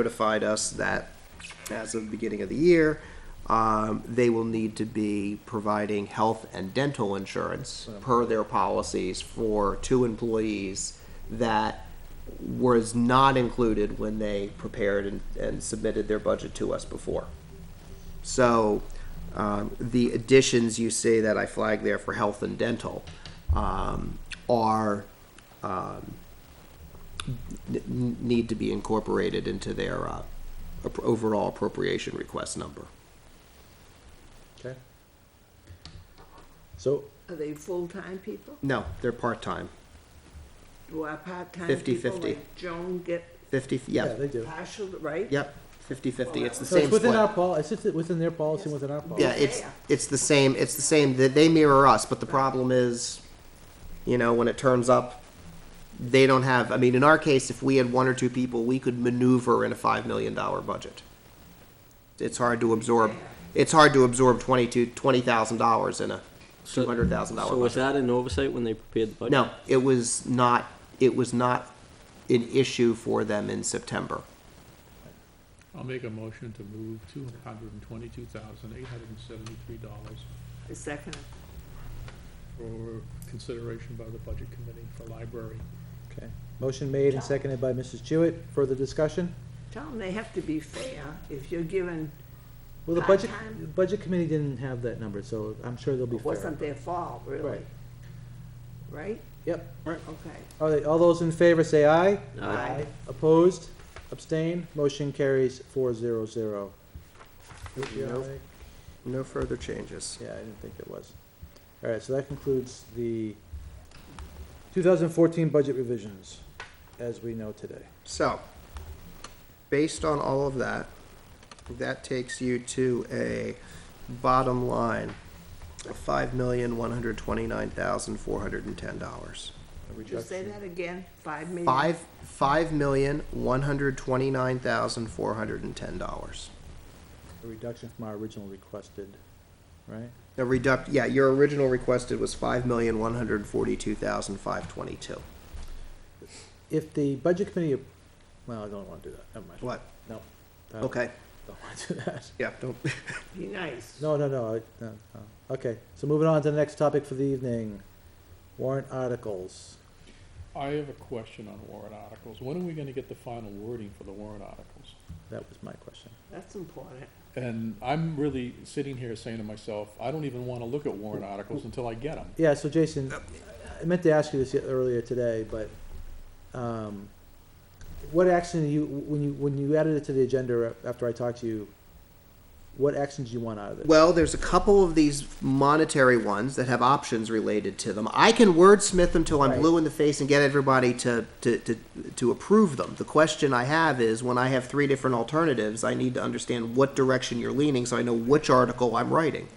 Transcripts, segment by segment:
notified us that as of the beginning of the year, um, they will need to be providing health and dental insurance per their policies for two employees that was not included when they prepared and, and submitted their budget to us before. So, um, the additions you see that I flagged there for health and dental, um, are, um, n- n- need to be incorporated into their, uh, ap- overall appropriation request number. Okay. So, Are they full-time people? No, they're part-time, Do our part-time Fifty, people fifty. like Joan get fifty, yeah, yeah, they do. partial, right? yep, fifty-fifty, it's the So same it's within our split. pol, it's just within their policy, and within our policy. Yeah, it's, it's the same, it's the same, that they mirror us, but the problem is, you know, when it turns up, they don't have, I mean, in our case, if we had one or two people, we could maneuver in a five million dollar budget. It's hard to absorb, it's hard to absorb twenty-two, twenty thousand dollars in a So- two hundred thousand dollar So budget. was that an oversight when they prepared the budget? No, it was not, it was not an issue for them in September. I'll make a motion to move two hundred and twenty-two thousand, eight hundred and seventy-three dollars A second, for consideration by the Budget Committee for Library. Okay. Motion made and seconded by Mrs. Jewett. Further discussion? tell them they have to be fair if you're given, Well, the budget, Part-time. the budget committee didn't have that number, so I'm sure they'll be it fair. wasn't their fault, really. Right. Right? Yep. Okay. All right, all those in favor say aye. Aye. Aye. Opposed? Abstained? Motion carries four zero zero. Nope. No further changes. Yeah, I didn't think it was. All right, so that concludes the two thousand fourteen budget revisions as we know today. So, based on all of that, that takes you to a bottom line of five million, one hundred twenty-nine thousand, four hundred and ten dollars. Did you say that again? Five million? Five, five million, one hundred twenty-nine thousand, four hundred and ten dollars. A reduction from our original requested, right? The reduct, yeah, your original requested was five million, one hundred forty-two thousand, five twenty-two. If the budget committee, well, I don't want to do that, never mind. What? No. I don't- Okay, Don't want to do that. yeah, don't, Be nice. No, no, no, I- no, no. Okay, so moving on to the next topic for the evening, warrant articles. I have a question on warrant articles. When are we gonna get the final wording for the warrant articles? That was my question. That's important. And I'm really sitting here saying to myself, I don't even wanna look at warrant articles until I get them. Yeah, so Jason, I meant to ask you this earlier today, but, um, what action you, when you, when you added it to the agenda after I talked to you, what actions do you want out of this? Well, there's a couple of these monetary ones that have options related to them. I can wordsmith them till I'm Right. blue in the face and get everybody to, to, to, to approve them. The question I have is when I have three different alternatives, I need to understand what direction you're leaning so I know which article I'm writing.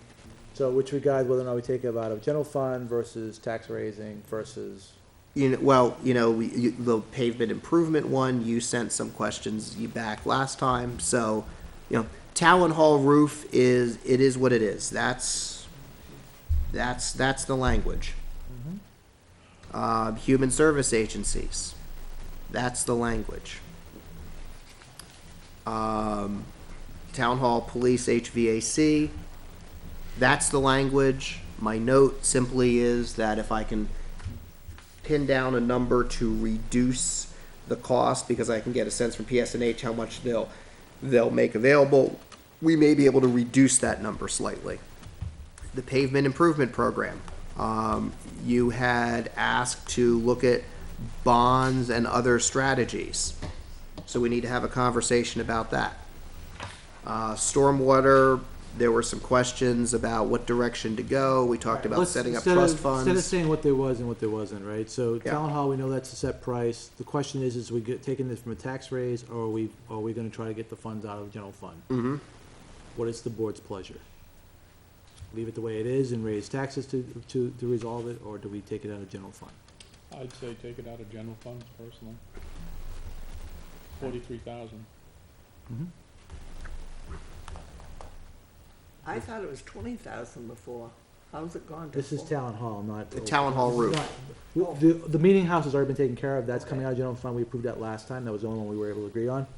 So which regard whether or not we take it out of general fund versus tax raising versus, You know, well, you know, we, you, the pavement improvement one, you sent some questions you back last time. So, you know, town hall roof is, it is what it is. That's, that's, that's the language. Uh, human service agencies, that's the language. Um, town hall, police, HVAC, that's the language. My note simply is that if I can pin down a number to reduce the cost because I can get a sense from PSNH how much they'll they'll make available. We may be able to reduce that number slightly. The pavement improvement program. Um, you had asked to look at bonds and other strategies. So we need to have a conversation about that. Uh, stormwater, there were some questions about what direction to go. We talked about Let's- setting up instead trust of- funds. Instead of saying what there was and what there wasn't, right? So Yeah. town hall, we know that's a set price. The question is, is we get, taking this from a tax raise or are we, are we gonna try to get the funds out of the general fund? Mm-hmm. What is the board's pleasure? Leave it the way it is and raise taxes to, to, to resolve it, or do we take it out of general fund? I'd say take it out of general funds personally. Forty-three thousand. I thought it was twenty thousand before. How's it gone to This is four? town hall, not. The town hall This is roof. not- w- The, the meeting house has already been taken care of. That's coming out of general fund. We approved that last time. That was the only one we were able to agree on.